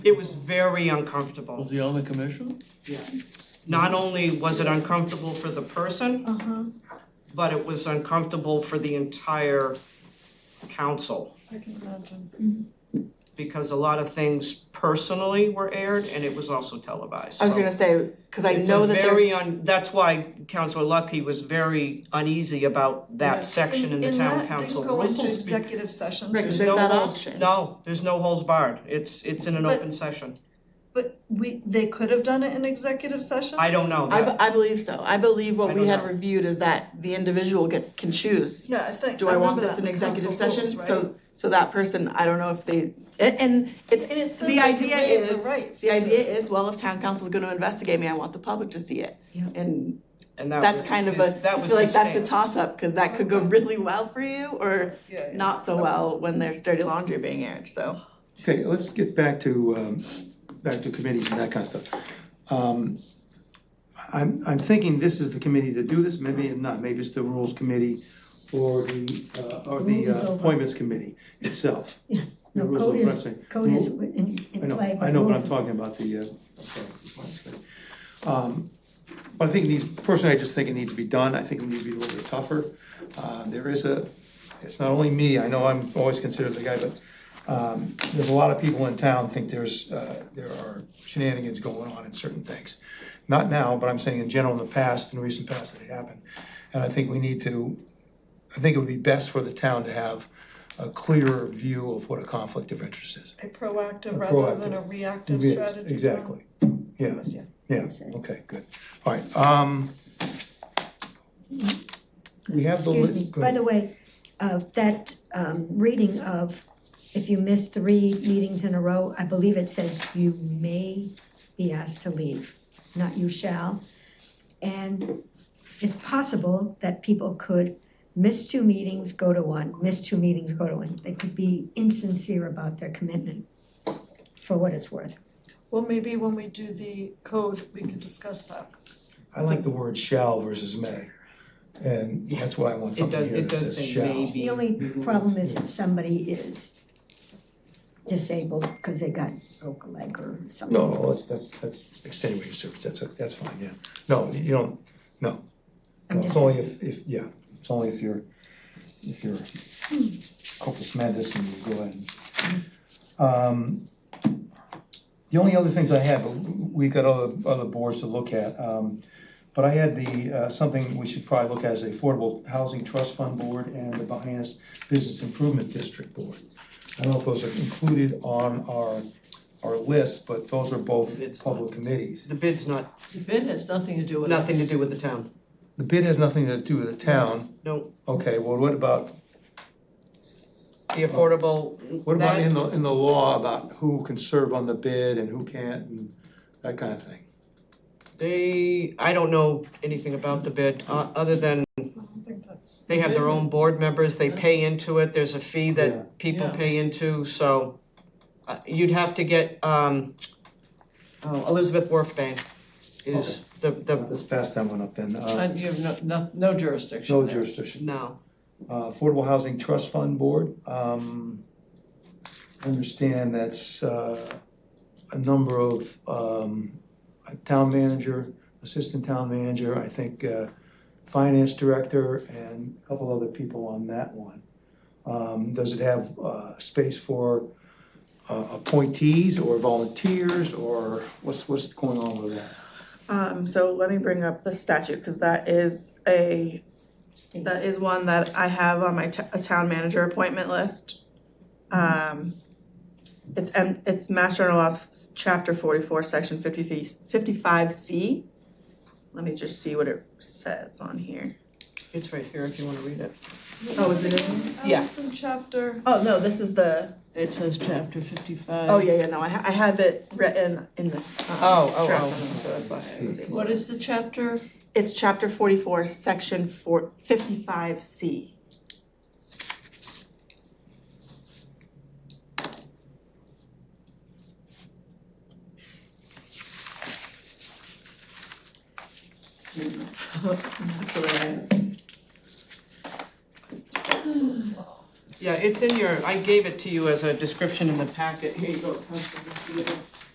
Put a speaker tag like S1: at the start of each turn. S1: It was very uncomfortable.
S2: Was he on the commission?
S1: Not only was it uncomfortable for the person,
S3: Uh-huh,
S1: but it was uncomfortable for the entire council.
S3: I can imagine.
S1: Because a lot of things personally were aired and it was also televised,
S3: I was
S1: so.
S3: gonna say, cause I
S1: It's
S3: know
S1: a
S3: that
S1: very
S3: there's,
S1: un, that's why Counselor Lucky was very uneasy about
S3: Yeah.
S1: that section in the town council rules.
S4: And that didn't go into
S1: because
S4: executive session,
S3: Right, 'cause
S1: there's
S3: there's
S1: no
S3: that
S1: holds-
S3: option.
S1: No, there's no holds barred, it's, it's in an
S4: But-
S1: open session,
S4: but we, they could have done it in executive session?
S1: I don't know
S3: I,
S1: that.
S3: be- I believe so. I believe
S1: I
S3: what we
S1: don't
S3: had
S1: know.
S3: reviewed is that the individual gets, can choose.
S4: Yeah, I think,
S3: Do
S4: I
S3: I want
S4: remember that
S3: this
S4: in
S3: in
S4: the
S3: executive
S4: council
S3: session?
S4: rules,
S3: So, so that person, I don't know if they, and, and it's,
S4: And it says
S3: the
S4: they can
S3: idea
S4: waive the
S3: is,
S4: right
S3: the
S4: to-
S3: idea is, well, if town council's gonna investigate me, I want the public to see it. And
S1: And that
S3: that's
S1: was-
S3: kind of
S1: it-
S3: a,
S1: that
S3: I
S1: was
S3: feel like
S1: his
S3: that's a
S1: stance.
S3: toss-up, cause that could go really well for you or
S4: Yeah, yeah.
S3: not so well when there's dirty laundry being aired, so.
S5: Okay, let's get back to, um, back to committees and that kind of stuff. Um, I'm, I'm thinking this is the committee to do this, maybe it not, maybe it's the rules committee or the, uh, or the
S6: Rules is
S5: uh,
S6: over.
S5: appointments committee itself.
S6: Yeah,
S5: The
S6: no,
S5: rules
S6: code
S5: of
S6: is,
S5: referencing.
S6: code is
S5: Rule-
S6: in,
S5: I
S6: in
S5: know,
S6: play.
S5: I know, but I'm
S6: rules is-
S5: talking about the, uh, I'm sorry, compliance committee. Um, but I think these, personally, I just think it needs to be done, I think it needs to be a little bit tougher. Uh, there is a, it's not only me, I know I'm always considered the guy, but, um, there's a lot of people in town think there's, uh, there are shenanigans going on in certain things. Not now, but I'm saying in general, in the past, in recent past, that it happened. And I think we need to, I think it would be best for the town to have a clearer view of what a conflict of interest is.
S4: A proactive rather than a
S5: proactive.
S4: reactive
S5: Yes,
S4: strategy. plan.
S5: Exactly, yeah,
S4: Yeah.
S5: yeah, okay, good, all right, um. We have the
S6: Excuse
S5: list,
S6: me, by the way, uh, that, um, reading of, if you miss three meetings in a row, I believe it says you may be asked to leave, not you shall. And it's possible that people could miss two meetings, go to one, miss two meetings, go to one. They could be insincere about their commitment, for what it's worth.
S4: Well, maybe when we do the code, we can discuss that.
S5: I like the word shall versus may, and that's why I want
S1: It
S5: something
S1: does,
S5: here
S1: it
S5: that
S1: does
S5: says
S1: say
S5: shall.
S1: maybe.
S6: The only problem is if somebody is disabled because they got broke a leg or something.
S5: No, no, that's, that's, that's extenuating service, that's, that's fine, yeah, no, you don't, no,
S6: I'm
S5: No, it's
S6: just-
S5: only if, if, yeah, it's only if you're, if you're corpus mandis and you go ahead and. Um, The only other things I had, but we got other, other boards to look at, um, but I had the, uh, something we should probably look at as the Affordable Housing Trust Fund Board and the Behance Business Improvement District Board. I don't know if those are included on our, our list, but those are both
S1: It's not.
S5: public committees.
S1: The bid's not,
S3: The bid has nothing to do with
S1: nothing to do with the town,
S5: The bid has nothing to do with the town,
S1: no,
S5: okay, well, what about
S1: the affordable,
S5: What about
S1: that-
S5: in the, in the law about who can serve on the bid and who can't and that kind of thing?
S1: They, I don't know anything about the bid, uh, other than
S4: I don't think that's,
S1: they have their own board members, they pay into it, there's a fee
S5: Yeah.
S1: that people
S3: Yeah.
S1: pay into, so. uh, You'd have to get, um, oh, Elizabeth Worfbank is the, the,
S5: Let's pass that one up then. Uh,
S3: you have no, no jurisdiction
S5: No jurisdiction.
S1: no,
S5: Uh, Affordable Housing Trust Fund Board, um, I understand that's, uh, a number of, um, a town manager, assistant town manager, I think, uh, finance director and a couple other people on that one. Um, does it have, uh, space for, uh, appointees or volunteers or what's, what's going on with that?
S3: Um, so let me bring up the statute, cause that is a,
S6: State.
S3: that is one that I have on my t- a town manager appointment list. Um, it's M, it's Mass General Laws, s- chapter forty-four, section 50 fifty-five C. Let me just see what it says on here.
S1: it's right here if you wanna read it.
S3: Oh, is it in?
S1: Yeah.
S4: oh, it's in chapter,
S3: Oh, no, this is the,
S1: It says chapter fifty-five.
S3: oh, yeah, yeah, no, I ha- I have it written in this, um,
S1: Oh, oh,
S3: draft
S1: oh.
S3: one, so that's why I was able
S4: what is the chapter?
S3: It's chapter forty-four, section four, fifty-five C.
S4: So small.
S1: Yeah, it's in your, I gave it to you as a description in the packet, here you go. Counselor, you can do it.